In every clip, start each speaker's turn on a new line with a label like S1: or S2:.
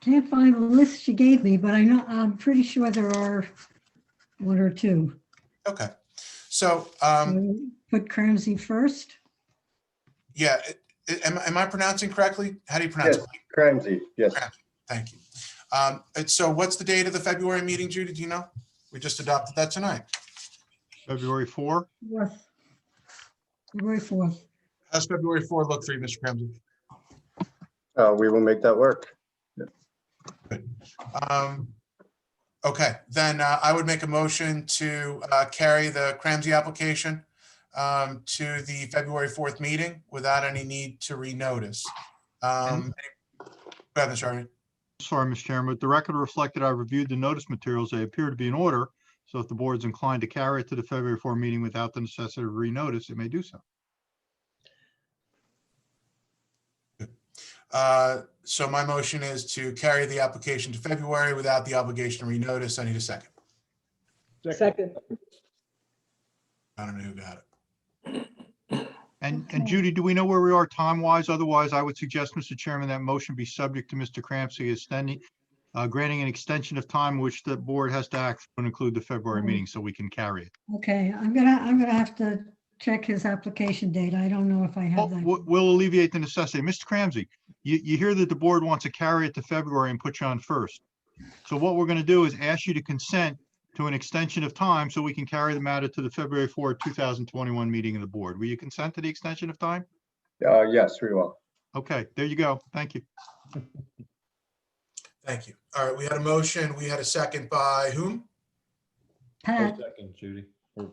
S1: Can't find the list she gave me, but I know, I'm pretty sure there are one or two.
S2: Okay. So,
S1: Mm-hmm.
S2: um,
S1: Put Ramsey first.
S2: yeah, it- it- am, am I pronouncing correctly? How do you pronounce it?
S3: Yes. Ramsey, yes.
S2: Thank you. Um, and so what's the date of the February meeting, Judy? Do you know? We just adopted that tonight.
S4: February 4?
S1: Fourth. February fourth.
S2: How's February 4 look for you, Mr. Ramsey?
S3: Uh, we will make that work.
S2: Um, Okay, then uh, I would make a motion to uh, carry the Ramsey application um, to the February 4th meeting without any need to renotice. Um, Go ahead, Mr. Arnett.
S4: Sorry, Mr. Chairman, but the record reflected I reviewed the notice materials. They appear to be in order. So if the board's inclined to carry it to the February 4 meeting without the necessity of renotice, it may do so.
S2: Uh, So my motion is to carry the application to February without the obligation to renotice. I need a second.
S5: Second,
S2: I don't know who got it.
S4: And, and
S1: Okay.
S4: Judy, do we know where we are time-wise? Otherwise, I would suggest, Mr. Chairman, that motion be subject to Mr. Cramsey extending, uh, granting an extension of time which the board has to act and include the February
S1: Mhm.
S4: meeting so we can carry it.
S1: Okay, I'm gonna, I'm gonna have to check his application date. I don't know if I
S4: Well,
S1: have that.
S4: we- Oh, We'll alleviate the necessity. Mr. Cramsey, you, you hear that the board wants to carry it to February and put you on first. So what we're going to do is ask you to consent to an extension of time so we can carry the matter to the February 4, 2021 meeting of the board. Will you consent to the extension of time?
S3: Uh, yes, we will.
S4: Okay, there you go. Thank you.
S2: Thank you. All right, we had a motion. We had a second by whom?
S6: Or
S1: Pat,
S6: Second, Judy. Or-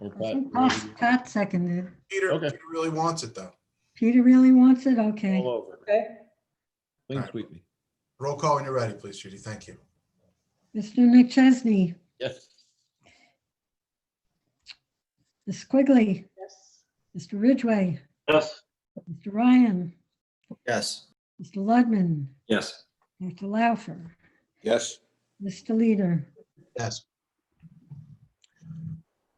S6: or
S1: I think
S6: oh, Pat,
S1: Pat Pat seconded.
S2: Peter
S6: Okay.
S2: Peter really wants it, though.
S1: Peter really wants it? Okay.
S6: All over.
S5: okay,
S6: Clean sweep me.
S2: Roll call when you're ready, please, Judy. Thank you.
S1: Mr. McChesney,
S6: Yes.
S1: Ms. Quigley,
S5: yes.
S1: Mr. Ridgway. Yes. Mr. Ryan,
S7: Yes.
S1: Mr. Ludman,
S7: Yes.
S1: Dr. Laufer,
S7: Yes.
S1: Mr. Leader.
S2: Yes.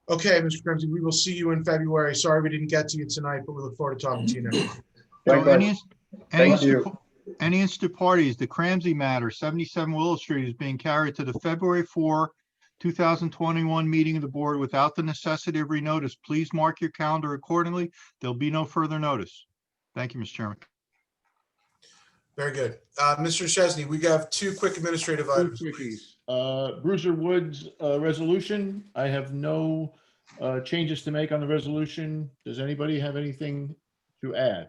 S2: Okay, Mr. Ramsey, we will see you in February. Sorry we didn't get to you tonight, but we look forward to talking to you next. month.
S4: So
S3: Likewise.
S4: any inst- any
S3: Thank you.
S4: inst- Any interested parties, the Cramsey matter, 77 Willow Street is being carried to the February 4, 2021 meeting of the board without the necessity of renotice. Please mark your calendar accordingly. There'll be no further notice. Thank you, Mr. Chairman.
S2: Very good. Uh, Mr. Chesney, we have two quick administrative items.
S6: Two
S2: please.
S6: quickies. Uh, Bruiser Woods, uh, resolution. I have no, uh, changes to make on the resolution. Does anybody have anything to add?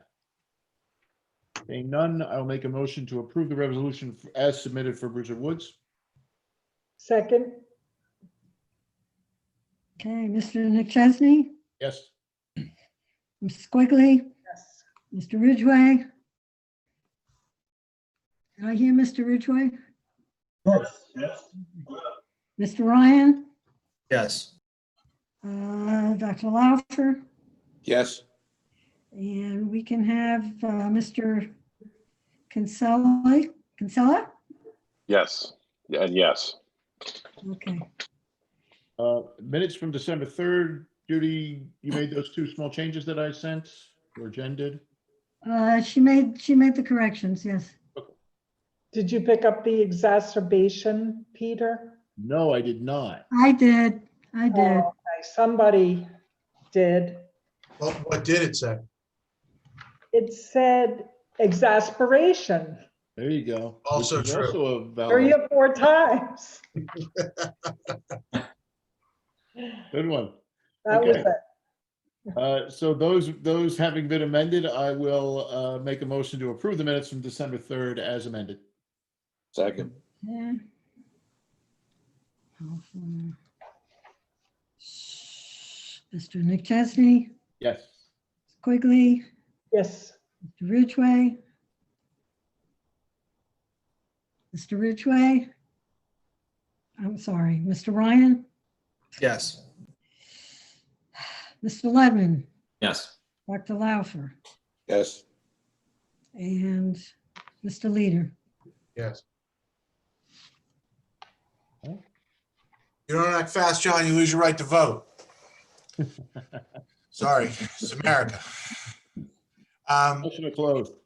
S6: Being none, I'll make a motion to approve the resolution as submitted for Bruiser Woods.
S5: Second,
S1: Okay, Mr. McChesney,
S6: Yes.
S1: Ms. Quigley,
S5: yes.
S1: Mr. Ridgway. Can I hear Mr. Ridgway? Yes. Mr. Ryan,
S7: Yes.
S1: uh, Dr. Laufer,
S7: Yes.
S1: and we can have uh, Mr. Kinsella, Kinsella?
S8: Yes, Yeah, yes.
S1: Okay,
S6: Uh, minutes from December third. Judy, you made those two small changes that I sent or Jen did?
S1: Uh, she made, she made the corrections, yes.
S5: Did you pick up the exacerbation, Peter?
S6: No, I did not.
S1: I did, I did.
S5: Oh, okay, Somebody did.
S2: Well, What did it say?
S5: It said exasperation
S6: There you go. Which
S2: Also
S6: is
S2: true.
S6: Also a
S5: three
S6: valid,
S5: or four times.
S6: good one.
S5: That was
S6: Okay.
S5: it.
S6: Uh, so those, those having been amended, I will, uh, make a motion to approve the minutes from December third as amended.
S7: Second.
S1: Yeah. Telephone. Mr. Nick Chesney,
S6: Yes.
S1: Quigley,
S5: Yes,
S1: Mr. Ridgway. Mr. Ridgway. I'm sorry, Mr. Ryan,
S7: Yes.
S1: Mr. Ledman,
S7: Yes.
S1: Dr. Laufer,
S7: Yes.
S1: and Mr. Leader.
S2: Yes. You don't act fast, John, you lose your right to vote. Sorry, it's America. Um,
S6: Motion to close.